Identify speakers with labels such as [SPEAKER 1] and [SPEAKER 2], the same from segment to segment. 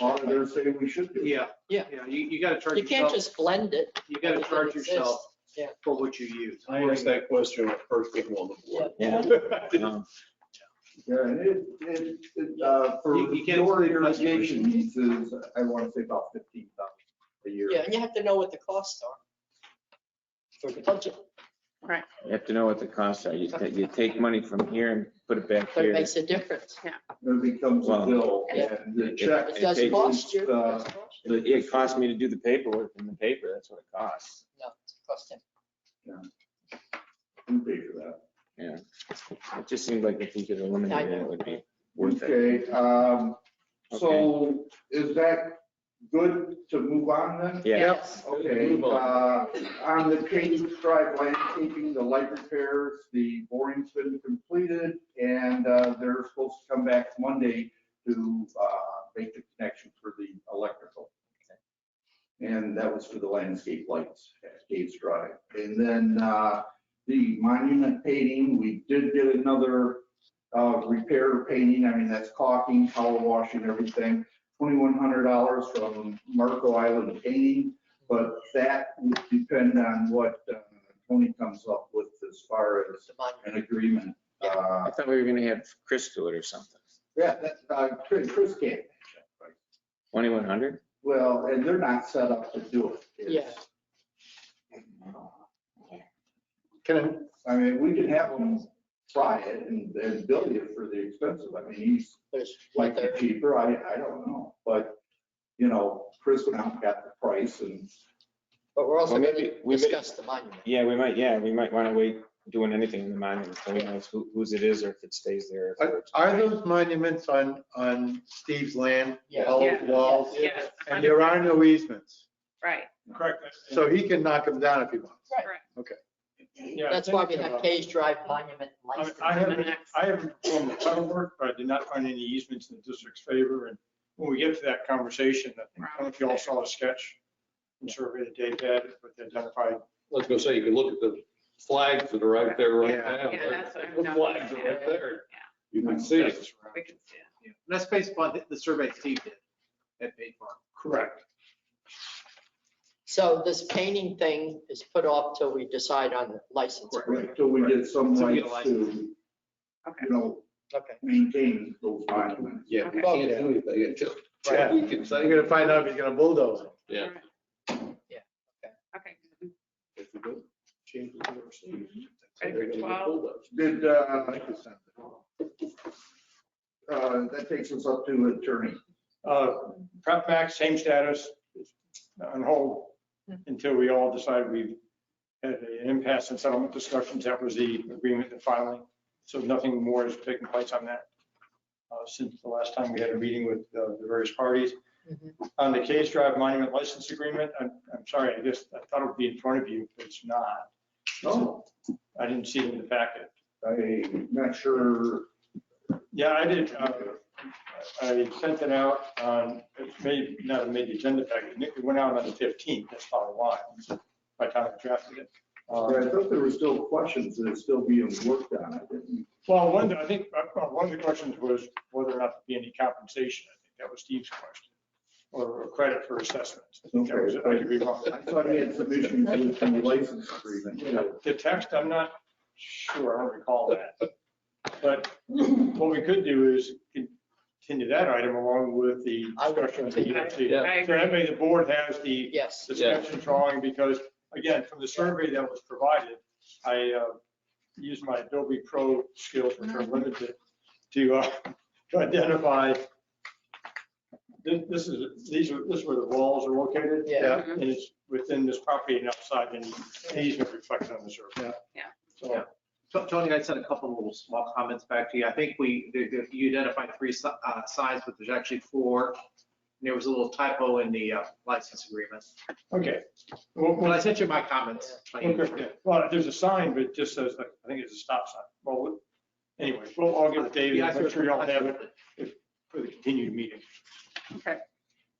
[SPEAKER 1] auditors say we should do.
[SPEAKER 2] Yeah.
[SPEAKER 3] Yeah.
[SPEAKER 2] Yeah, you, you gotta charge
[SPEAKER 3] You can't
[SPEAKER 2] yourself,
[SPEAKER 3] just blend it.
[SPEAKER 2] you gotta
[SPEAKER 3] Everything
[SPEAKER 2] charge
[SPEAKER 3] exists.
[SPEAKER 2] yourself
[SPEAKER 3] Yeah.
[SPEAKER 2] for what you use.
[SPEAKER 4] I asked that question when I first came on the board.
[SPEAKER 3] Yeah.
[SPEAKER 1] Yeah, and it, it, it, uh, for
[SPEAKER 2] You- you can't
[SPEAKER 1] your
[SPEAKER 2] sleep much.
[SPEAKER 1] irrigation pieces, I want to say about fifteen thousand a year.
[SPEAKER 3] Yeah, and you have to know what the costs are for the budget.
[SPEAKER 5] You have to know what the costs are. You, ta- you take money from here and put it back
[SPEAKER 3] But it
[SPEAKER 5] here.
[SPEAKER 3] makes a difference.
[SPEAKER 1] It becomes a
[SPEAKER 5] Well,
[SPEAKER 1] bill and the
[SPEAKER 5] it-
[SPEAKER 1] check.
[SPEAKER 3] It
[SPEAKER 5] It
[SPEAKER 3] does
[SPEAKER 5] takes-
[SPEAKER 3] cost you. it
[SPEAKER 1] uh,
[SPEAKER 3] does cost you.
[SPEAKER 5] But It cost me to do the paperwork in the paper. That's what it costs.
[SPEAKER 3] No, it's costing.
[SPEAKER 1] We pay for that.
[SPEAKER 5] It just seemed like if we could eliminate it, it would be worth it.
[SPEAKER 1] Okay, um, so is that good to move on then?
[SPEAKER 5] Yeah.
[SPEAKER 3] Yes.
[SPEAKER 1] Okay,
[SPEAKER 4] Move
[SPEAKER 1] uh, on the Cadence Drive landscaping, the light repairs, the boring's been completed, and, uh, they're supposed to come back Monday to, uh, make the connection for the electrical. And that was for the landscape lights at Cadence Drive. And then, uh, the monument painting, we did get another, uh, repair painting, I mean, that's caulking, color washing, everything. Twenty-one hundred dollars from Marco Island Painting. But that would depend on what uh, Tony comes up with as far as
[SPEAKER 3] The monument.
[SPEAKER 1] an agreement. Uh,
[SPEAKER 5] I thought we were gonna have Chris do it or something.
[SPEAKER 1] Yeah, that, uh, Chris Chris can't. match up, right?
[SPEAKER 5] Twenty-one hundred?
[SPEAKER 1] Well, and they're not set up to do it. It's-
[SPEAKER 4] Can
[SPEAKER 1] I mean, we could have them try it and and bill you for the expensive. I mean, he's
[SPEAKER 3] But it's
[SPEAKER 1] like
[SPEAKER 3] what they're-
[SPEAKER 1] cheaper, I, I don't know. But, you know, Chris went out and got the price and
[SPEAKER 3] But we're also
[SPEAKER 5] Well,
[SPEAKER 3] going
[SPEAKER 5] maybe
[SPEAKER 3] to
[SPEAKER 5] we may-
[SPEAKER 3] discuss the monument.
[SPEAKER 5] Yeah, we might, yeah, we might wanna wait doing anything in the monument until we know who- whose it is or if it stays there.
[SPEAKER 4] I, are those monuments on, on Steve's land?
[SPEAKER 3] Yeah.
[SPEAKER 4] all
[SPEAKER 6] Yeah.
[SPEAKER 4] Walls,
[SPEAKER 6] Yes,
[SPEAKER 4] and there are no easements,
[SPEAKER 6] right.
[SPEAKER 7] Correct.
[SPEAKER 4] so he can knock them down if he wants.
[SPEAKER 7] Yeah,
[SPEAKER 3] That's why we
[SPEAKER 7] thinking
[SPEAKER 3] have
[SPEAKER 7] about-
[SPEAKER 3] Cage Drive Monument
[SPEAKER 7] I mean,
[SPEAKER 3] license.
[SPEAKER 7] I haven't,
[SPEAKER 6] Next.
[SPEAKER 7] I haven't performed the title work, but I did not find any easements in the district's favor. And when we get to that conversation, I think- I don't know if you all saw the sketch and survey that Dave had, but they identified
[SPEAKER 8] I was gonna say, you can look at the flags that are right there right now.
[SPEAKER 6] Yeah, that's what I'm
[SPEAKER 8] The flags are
[SPEAKER 6] noticing.
[SPEAKER 8] right there.
[SPEAKER 6] Yeah.
[SPEAKER 8] You can see it.
[SPEAKER 6] We can see it.
[SPEAKER 2] Yeah, and That's based upon the- the survey Steve did at Bay Farm.
[SPEAKER 7] Correct.
[SPEAKER 3] So this painting thing is put off till we decide on the license.
[SPEAKER 2] Correct.
[SPEAKER 1] till we get some
[SPEAKER 2] So we
[SPEAKER 1] rights
[SPEAKER 2] get a
[SPEAKER 1] to, you
[SPEAKER 6] Okay.
[SPEAKER 1] know,
[SPEAKER 3] Okay.
[SPEAKER 1] maintain those monuments.
[SPEAKER 8] Yeah, we can't do anything until,
[SPEAKER 4] Right.
[SPEAKER 8] we can say.
[SPEAKER 4] You're gonna find out if he's gonna bulldoze them.
[SPEAKER 8] Yeah.
[SPEAKER 3] Yeah, okay.
[SPEAKER 6] Okay.
[SPEAKER 8] If we don't change the overseas.
[SPEAKER 6] Mm-hmm. Ready for 12?
[SPEAKER 1] Did, uh, uh, that takes us up to attorney.
[SPEAKER 7] Uh, Prep back, same status, on hold until we all decide we've had an impasse in settlement discussions. That was the agreement, the filing. So nothing more has taken place on that uh, since the last time we had a meeting with uh, the various parties. On the Case Drive Monument License Agreement, I'm, I'm sorry, I guess, I thought it would be in front of you, but it's not.
[SPEAKER 1] No,
[SPEAKER 7] I didn't see it in the packet.
[SPEAKER 1] I'm not sure.
[SPEAKER 7] Yeah, I did. uh, I sent it out on, it may not have made the agenda packet. Nick, it went out on the 15th, that's probably why, by the time I drafted it. Uh,
[SPEAKER 1] I thought there were still questions that are still being worked on. I didn't-
[SPEAKER 7] Well, one, of the- I think, uh, uh, one of the questions was whether or not there'd be any compensation. I think that was Steve's question, or credit for assessments. I think that was, I could be wrong.
[SPEAKER 1] I thought he had some issues with the license agreement. too.
[SPEAKER 7] The text, I'm not sure, I don't recall that. But what we could do is continue that item along with the
[SPEAKER 3] I would
[SPEAKER 7] discussion of the
[SPEAKER 3] continue.
[SPEAKER 7] EFT.
[SPEAKER 8] Yeah.
[SPEAKER 6] I
[SPEAKER 7] So that way the board has the
[SPEAKER 3] Yes.
[SPEAKER 7] discussion drawing, because again, from the survey that was provided, I uh, used my Adobe Pro skills, which are limited, to uh, to identify, this this is, these are, this is where the walls are located.
[SPEAKER 3] Yeah.
[SPEAKER 7] And it's within this property and outside, and easement reflected on the survey.
[SPEAKER 6] Yeah.
[SPEAKER 7] So
[SPEAKER 2] To- Tony, I sent a couple of little small comments back to you. I think we, there- there- you identified three si- uh, signs, but there's actually four. And There was a little typo in the uh, license agreement.
[SPEAKER 7] Okay. Well,
[SPEAKER 2] Well,
[SPEAKER 7] well,
[SPEAKER 2] I sent you my comments. by email.
[SPEAKER 7] okay. Well, there's a sign, but it just says, like, I think it's a stop sign. Well, anyway, we'll, I'll give it to David,
[SPEAKER 2] Yeah, I
[SPEAKER 7] make sure y'all
[SPEAKER 2] circled- I
[SPEAKER 7] have it
[SPEAKER 2] circled
[SPEAKER 7] for the continued meeting,
[SPEAKER 6] Okay.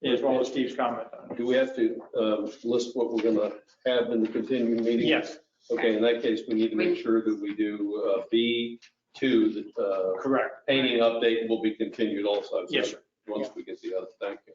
[SPEAKER 7] as well as Steve's comment on it.
[SPEAKER 8] Do we have to um, list what we're gonna have in the continuing meeting?
[SPEAKER 7] Yes,
[SPEAKER 8] Okay, in that case, we need to make sure that we do B two, the uh,
[SPEAKER 7] correct.
[SPEAKER 8] painting update will be continued also.
[SPEAKER 7] Yes, sir.
[SPEAKER 8] Once we get the other, thank you.